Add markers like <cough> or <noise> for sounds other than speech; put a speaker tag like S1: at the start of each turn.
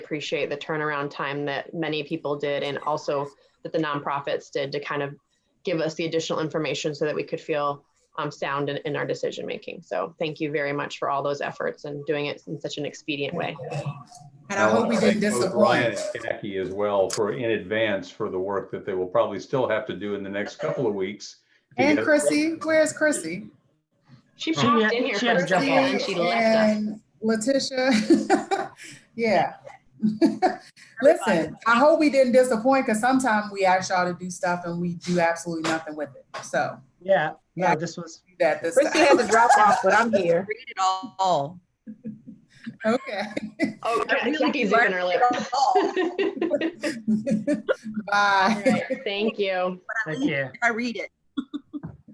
S1: appreciate the turnaround time that many people did and also that the nonprofits did to kind of give us the additional information so that we could feel um, sound in, in our decision making. So thank you very much for all those efforts and doing it in such an expedient way.
S2: And I hope we didn't
S3: Thank both Ryan
S2: disappoint.
S3: and Jackie as well for in advance for the work that they will probably still have to do in the next couple of weeks. to
S2: And
S3: get-
S2: Chrissy, where's Chrissy?
S1: She
S4: She
S1: popped
S4: had-
S1: in here for
S4: she had
S1: a
S4: to jump
S1: second
S4: off.
S1: and she left us.
S2: And Letitia, <laughs> yeah. Listen, I hope we didn't disappoint because sometimes we ask y'all to do stuff and we do absolutely nothing with it. So
S4: Yeah,
S2: Yeah.
S4: yeah, this was,
S2: do that this
S5: Chrissy has a
S2: time.
S5: drop off, but I'm here.
S6: Read it all.
S2: <laughs> Okay. <laughs>
S1: Oh, Jackie's even her lip.
S2: Bye.
S1: Thank you.
S4: thank you.
S6: I read it.